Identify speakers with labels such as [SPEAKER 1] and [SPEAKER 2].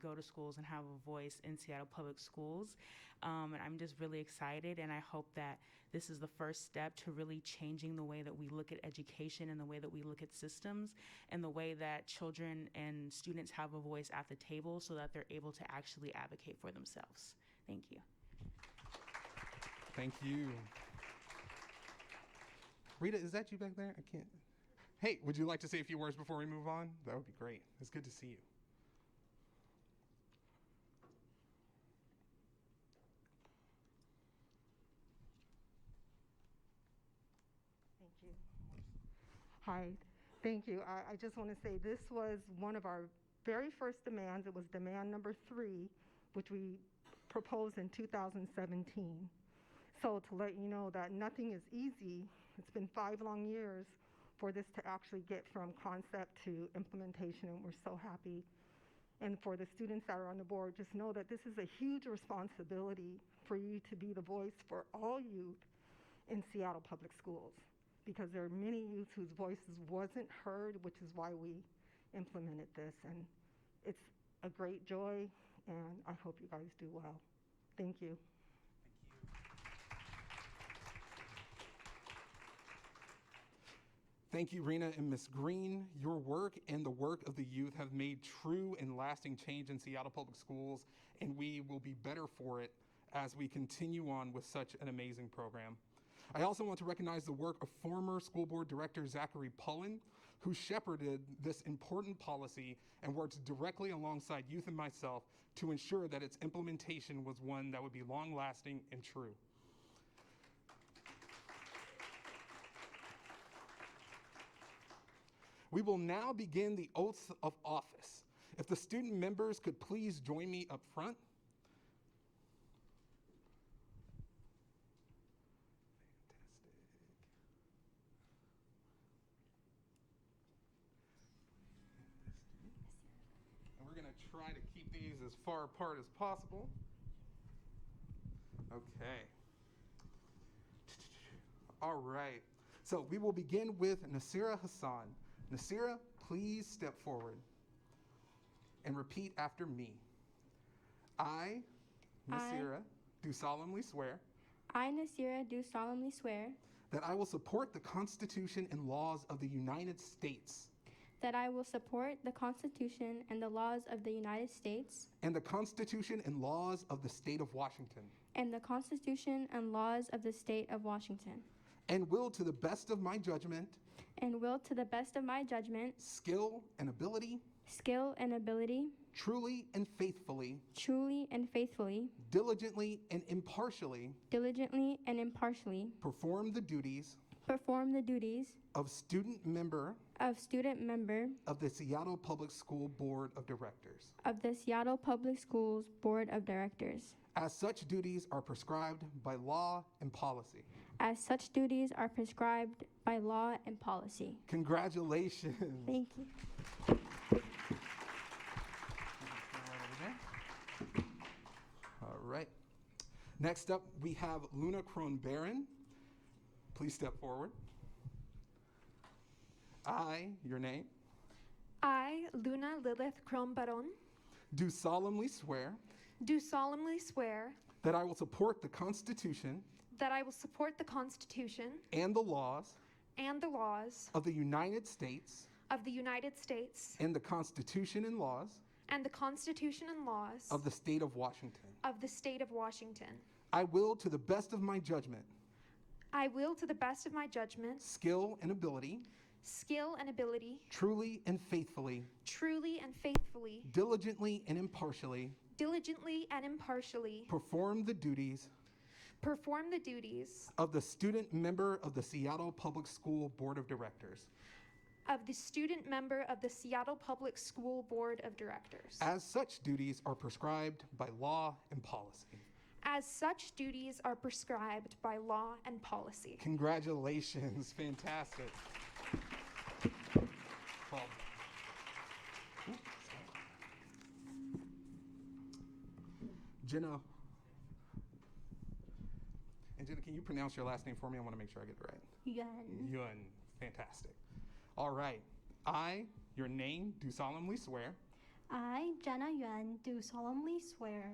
[SPEAKER 1] go to schools and have a voice in Seattle public schools. Um, and I'm just really excited, and I hope that this is the first step to really changing the way that we look at education and the way that we look at systems and the way that children and students have a voice at the table so that they're able to actually advocate for themselves. Thank you.
[SPEAKER 2] Thank you. Rita, is that you back there? I can't. Hey, would you like to say a few words before we move on? That would be great. It's good to see you.
[SPEAKER 3] Thank you. Hi, thank you. I, I just want to say this was one of our very first demands. It was demand number three, which we proposed in 2017. So to let you know that nothing is easy, it's been five long years for this to actually get from concept to implementation, and we're so happy. And for the students that are on the board, just know that this is a huge responsibility for you to be the voice for all youth in Seattle Public Schools because there are many youth whose voices wasn't heard, which is why we implemented this. And it's a great joy, and I hope you guys do well. Thank you.
[SPEAKER 2] Thank you, Rena and Ms. Green. Your work and the work of the youth have made true and lasting change in Seattle Public Schools, and we will be better for it as we continue on with such an amazing program. I also want to recognize the work of former school board director Zachary Pullen, who shepherded this important policy and worked directly alongside youth and myself to ensure that its implementation was one that would be long lasting and true. We will now begin the oaths of office. If the student members could please join me up front. Fantastic. And we're going to try to keep these as far apart as possible. Okay. All right. So we will begin with Nasira Hassan. Nasira, please step forward and repeat after me. I,
[SPEAKER 4] I-
[SPEAKER 2] Nasira, do solemnly swear
[SPEAKER 4] I, Nasira, do solemnly swear
[SPEAKER 2] that I will support the Constitution and laws of the United States
[SPEAKER 4] that I will support the Constitution and the laws of the United States
[SPEAKER 2] and the Constitution and laws of the State of Washington,
[SPEAKER 4] and the Constitution and laws of the State of Washington,
[SPEAKER 2] and will, to the best of my judgment,
[SPEAKER 4] and will, to the best of my judgment,
[SPEAKER 2] skill, and ability,
[SPEAKER 4] skill, and ability,
[SPEAKER 2] truly and faithfully,
[SPEAKER 4] truly and faithfully,
[SPEAKER 2] diligently and impartially
[SPEAKER 4] diligently and impartially,
[SPEAKER 2] perform the duties
[SPEAKER 4] perform the duties
[SPEAKER 2] of student member
[SPEAKER 4] of student member
[SPEAKER 2] of the Seattle Public School Board of Directors,
[SPEAKER 4] of the Seattle Public Schools Board of Directors,
[SPEAKER 2] as such duties are prescribed by law and policy.
[SPEAKER 4] as such duties are prescribed by law and policy.
[SPEAKER 2] Congratulations.
[SPEAKER 4] Thank you.
[SPEAKER 2] All right. Next up, we have Luna Kronbaron. Please step forward. I, your name,
[SPEAKER 5] I, Luna Lilith Crombaron,
[SPEAKER 2] do solemnly swear
[SPEAKER 5] do solemnly swear
[SPEAKER 2] that I will support the Constitution
[SPEAKER 5] that I will support the Constitution
[SPEAKER 2] and the laws
[SPEAKER 5] and the laws
[SPEAKER 2] of the United States
[SPEAKER 5] of the United States
[SPEAKER 2] and the Constitution and laws
[SPEAKER 5] and the Constitution and laws
[SPEAKER 2] of the State of Washington.
[SPEAKER 5] of the State of Washington.
[SPEAKER 2] I will, to the best of my judgment,
[SPEAKER 5] I will, to the best of my judgment,
[SPEAKER 2] skill, and ability,
[SPEAKER 5] skill, and ability,
[SPEAKER 2] truly and faithfully,
[SPEAKER 5] truly and faithfully,
[SPEAKER 2] diligently and impartially,
[SPEAKER 5] diligently and impartially
[SPEAKER 2] perform the duties
[SPEAKER 5] perform the duties
[SPEAKER 2] of the student member of the Seattle Public School Board of Directors,
[SPEAKER 5] of the student member of the Seattle Public School Board of Directors.
[SPEAKER 2] as such duties are prescribed by law and policy.
[SPEAKER 5] As such duties are prescribed by law and policy.
[SPEAKER 2] Congratulations, fantastic. Well- Jenna. And Jenna, can you pronounce your last name for me? I want to make sure I get it right.
[SPEAKER 4] Yuan.
[SPEAKER 2] Yun, fantastic. All right. I, your name, do solemnly swear
[SPEAKER 6] I, Jenna Yuan, do solemnly swear